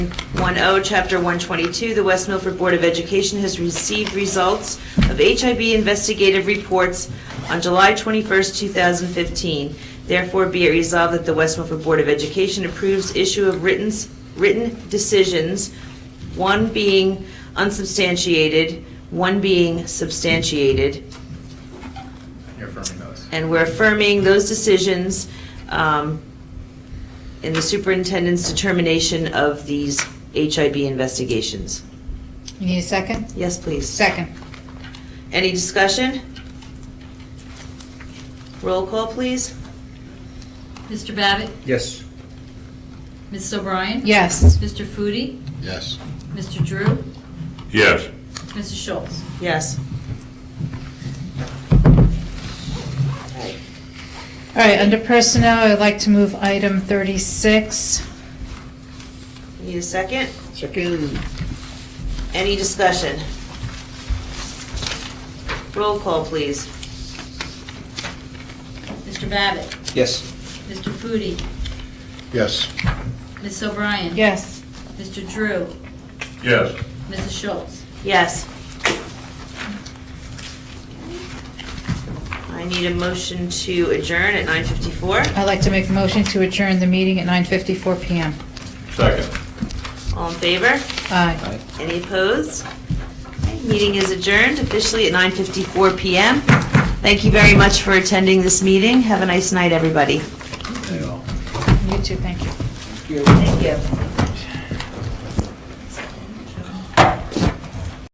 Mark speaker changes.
Speaker 1: 1O, oh, Chapter 122, the West Milford Board of Education has received results of HIB investigative reports on July 21st, 2015. Therefore, be it resolved that the West Milford Board of Education approves issue of written, written decisions, one being unsubstantiated, one being substantiated,
Speaker 2: You're affirming those.
Speaker 1: and we're affirming those decisions um, in the superintendent's determination of these HIB investigations.
Speaker 3: You need a second?
Speaker 1: Yes, please.
Speaker 3: Second.
Speaker 1: Any discussion? Roll call, please.
Speaker 4: Mr. Babbitt?
Speaker 2: Yes.
Speaker 4: Mrs. O'Brien?
Speaker 3: Yes.
Speaker 4: Mr. Foodie?
Speaker 5: Yes.
Speaker 4: Mr. Drew?
Speaker 5: Yes.
Speaker 4: Mrs. Schultz?
Speaker 1: Yes.
Speaker 3: All right, under personnel, I'd like to move item 36.
Speaker 1: Need a second?
Speaker 2: Second.
Speaker 1: Any discussion? Roll call, please.
Speaker 4: Mr. Babbitt?
Speaker 2: Yes.
Speaker 4: Mr. Foodie?
Speaker 5: Yes.
Speaker 4: Mrs. O'Brien?
Speaker 3: Yes.
Speaker 4: Mr. Drew?
Speaker 5: Yes.
Speaker 4: Mrs. Schultz?
Speaker 1: Yes. I need a motion to adjourn at 9:54.
Speaker 3: I'd like to make a motion to adjourn the meeting at 9:54 PM.
Speaker 5: Second.
Speaker 1: All in favor?
Speaker 3: Aye.
Speaker 1: Any opposed? Okay, Meeting is adjourned officially at 9:54 PM. Thank you very much for attending this meeting. Have a nice night, everybody.
Speaker 3: You too, thank you.
Speaker 1: Thank you.